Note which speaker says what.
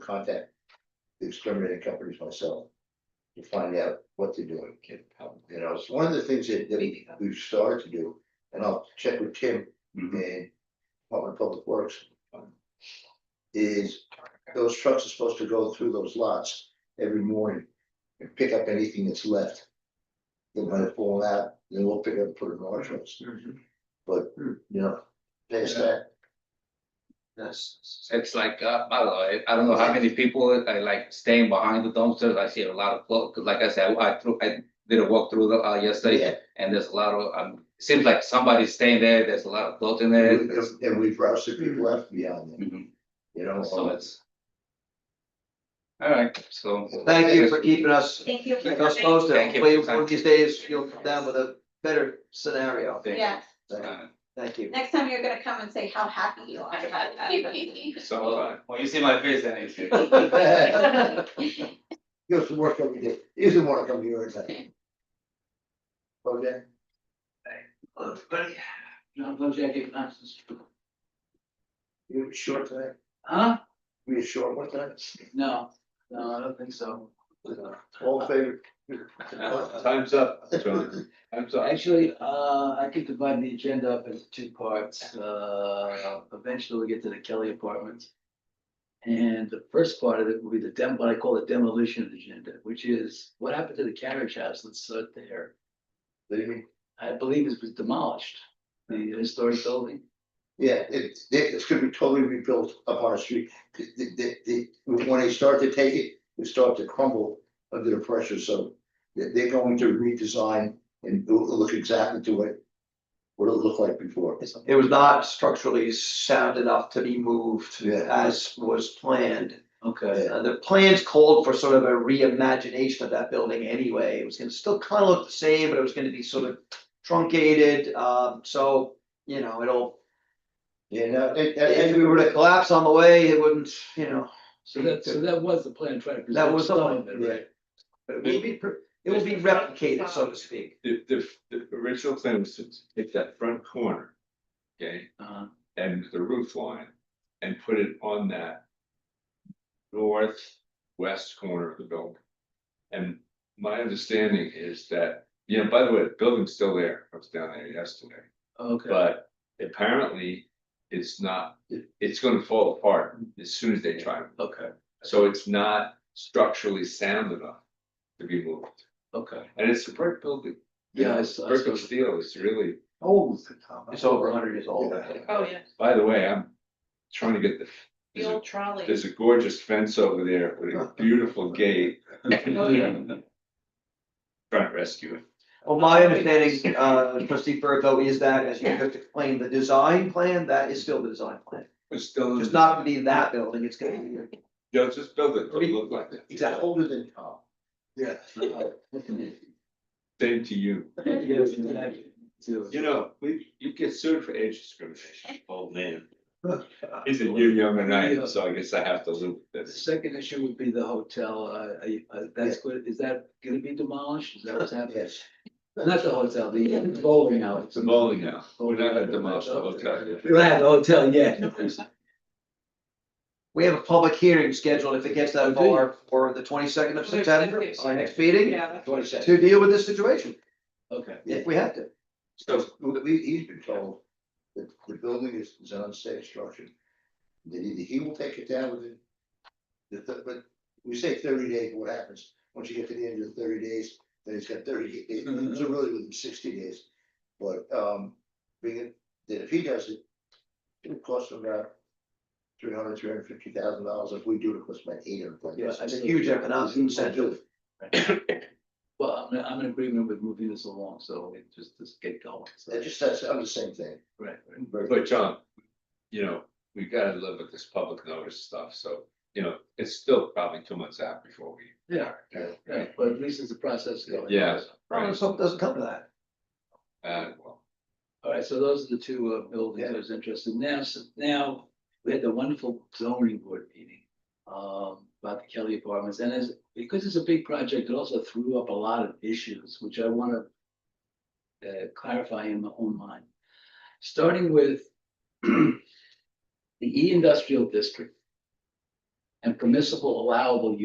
Speaker 1: contact the exterminating companies myself. To find out what they're doing,
Speaker 2: Kid, probably.
Speaker 1: you know, it's one of the things that, that we- we've started to do, and I'll check with Tim
Speaker 3: Mm-hmm.
Speaker 2: Mhm.
Speaker 1: and Department of Public Works. Is those trucks are supposed to go through those lots every morning and pick up anything that's left. They might have fallen out, then we'll pick up, and put it in our trucks,
Speaker 2: Mhm.
Speaker 1: but, you know, past that,
Speaker 2: That's, it's like, uh, I don't know, I- I don't know how many people, I like staying behind the dumpsters, I see a lot of, clo- 'cause like I said, I threw, I did a walk through the, uh, yesterday.
Speaker 1: yeah,
Speaker 2: And there's a lot of, um, seems like somebody's staying there, there's a lot of clothes in there.
Speaker 3: Mm-hmm.
Speaker 2: there's-
Speaker 1: and we've rousted people left beyond them,
Speaker 2: Mhm.
Speaker 1: you
Speaker 3: Oh,
Speaker 1: know.
Speaker 2: So it's. All right, so.
Speaker 3: Thank you for keeping us,
Speaker 4: Thank you. for
Speaker 3: keeping us
Speaker 4: coming.
Speaker 3: posted.
Speaker 2: Thank you.
Speaker 3: Hopefully, one of these days, you'll come down with a better scenario.
Speaker 2: Thank you.
Speaker 4: Yeah,
Speaker 2: Uh,
Speaker 3: Thank you.
Speaker 4: next time you're gonna come and say how happy you are about that.
Speaker 2: So, uh, when you see my face, then it's.
Speaker 1: He goes to work every day, he doesn't wanna come here every day. Okay,
Speaker 5: John Bojek Ignatius.
Speaker 1: you were short tonight,
Speaker 5: Huh?
Speaker 1: we were short one time,
Speaker 5: No, no, I don't think so.
Speaker 1: all in favor.
Speaker 2: Time's up, John, I'm sorry.
Speaker 5: Actually, uh, I could divide the agenda up into two parts. Uh, eventually we'll get to the Kelly Apartments. And the first part of it will be the dem, what I call the demolition agenda, which is what happened to the carriage house that's uh, there? I believe it was demolished, the historic building.
Speaker 1: Yeah, it, it's gonna be totally rebuilt up on the street, The- the- the- when they start to take it, it starts to crumble under the pressure, so. They, they're going to redesign and it'll look exactly to it, what it looked like before.
Speaker 3: It was not structurally sound enough to be moved
Speaker 1: Yeah.
Speaker 3: as was planned.
Speaker 5: Okay.
Speaker 3: Uh, the plans called for sort of a reimagination of that building anyway. It was gonna still kind of look the same, but it was gonna be sort of truncated, um, so, you know, it'll.
Speaker 1: You know, and,
Speaker 3: If we were to collapse on the way, it wouldn't, you know,
Speaker 5: So that, so that was the plan, trying to.
Speaker 3: That was the
Speaker 5: preserve some of
Speaker 1: plan,
Speaker 5: it,
Speaker 1: yeah.
Speaker 5: right?
Speaker 3: it would be, pre- it would be replicated, so to speak.
Speaker 6: the, the, the original plan was to take that front corner, okay,
Speaker 5: Uh-huh.
Speaker 6: and the roof line, and put it on that northwest corner of the building. And my understanding is that, you know, by the way, the building's still there, I was down there yesterday,
Speaker 5: Okay.
Speaker 6: but apparently it's not, it's gonna fall apart as soon as they try it.
Speaker 5: Okay,
Speaker 6: So it's not structurally sound enough to be moved.
Speaker 5: okay.
Speaker 6: And it's a brick building.
Speaker 5: Yeah, I s- I
Speaker 6: Brick and
Speaker 5: suppose-
Speaker 6: steel is really
Speaker 1: Oh,
Speaker 3: It's over hundred years old.
Speaker 6: Yeah.
Speaker 7: Oh, yeah,
Speaker 6: By the way, I'm trying to get the,
Speaker 7: the
Speaker 6: there's a,
Speaker 7: old trolley.
Speaker 6: there's a gorgeous fence over there with a beautiful gate.
Speaker 5: Oh,
Speaker 6: Trying to rescue it.
Speaker 3: Well, my understanding, uh, trustee Bertho, is that as you have to explain the design plan, that is still the design plan.
Speaker 6: It's still.
Speaker 3: It's not gonna be that building, it's gonna be.
Speaker 6: Yeah, just build it, it'll look like that.
Speaker 1: He's older than Tom. Yeah.
Speaker 6: Same to you.
Speaker 5: Yes, exactly. Too.
Speaker 6: You know, we, you get sued for age discrimination. Old man. Isn't you young and I, am, so I guess I have to live with
Speaker 5: The
Speaker 6: this.
Speaker 5: second issue would be the hotel, uh, I- I- that's good, is that gonna be demolished, is that what's happening?
Speaker 1: Yes.
Speaker 5: Not the hotel, the bowling alley.
Speaker 6: It's a bowling now. We're not gonna demolish the hotel yet.
Speaker 5: We don't have the hotel yet.
Speaker 3: We have a public hearing scheduled if it gets
Speaker 5: Oh,
Speaker 3: that
Speaker 5: do you?
Speaker 3: far for the twenty second of September, our next meeting,
Speaker 7: Yeah, that's-
Speaker 1: Twenty seconds.
Speaker 3: to deal with this situation,
Speaker 5: Okay,
Speaker 3: if we have to.
Speaker 6: So,
Speaker 1: We, he's been told that the building is, is an unsafe structure. That either he will take it down within. The, th- but we say thirty days, what happens? Once you get to the end of the thirty days, then he's got thirty, days.
Speaker 5: Mhm.
Speaker 1: so really within sixty days. But, um, being, it- that if he does it, it'll cost him about. Three hundred, three hundred fifty thousand dollars. If we do it, it costs about eight hundred.
Speaker 3: Yes, it's a huge economic incentive.
Speaker 5: well, I'm, I'm in agreement with moving this along, so it just, just get going, so.
Speaker 1: That just, that's, I'm the same thing.
Speaker 5: Right, right.
Speaker 6: but John, you know, we gotta live with this public notice stuff, so, you know, it's still probably two months out before we.
Speaker 5: Yeah,
Speaker 6: Yeah.
Speaker 5: yeah, but at least it's a process going.
Speaker 6: Yeah.
Speaker 3: Well, let's hope it doesn't come to that.
Speaker 6: Uh, well.
Speaker 5: All right, so those are the two uh, buildings I was interested in. Now, so now, we had the wonderful zoning board meeting. Um, about the Kelly Apartments and as, because it's a big project, it also threw up a lot of issues, which I wanna. Uh, clarify in my own mind, starting with. The E industrial district. and permissible allowable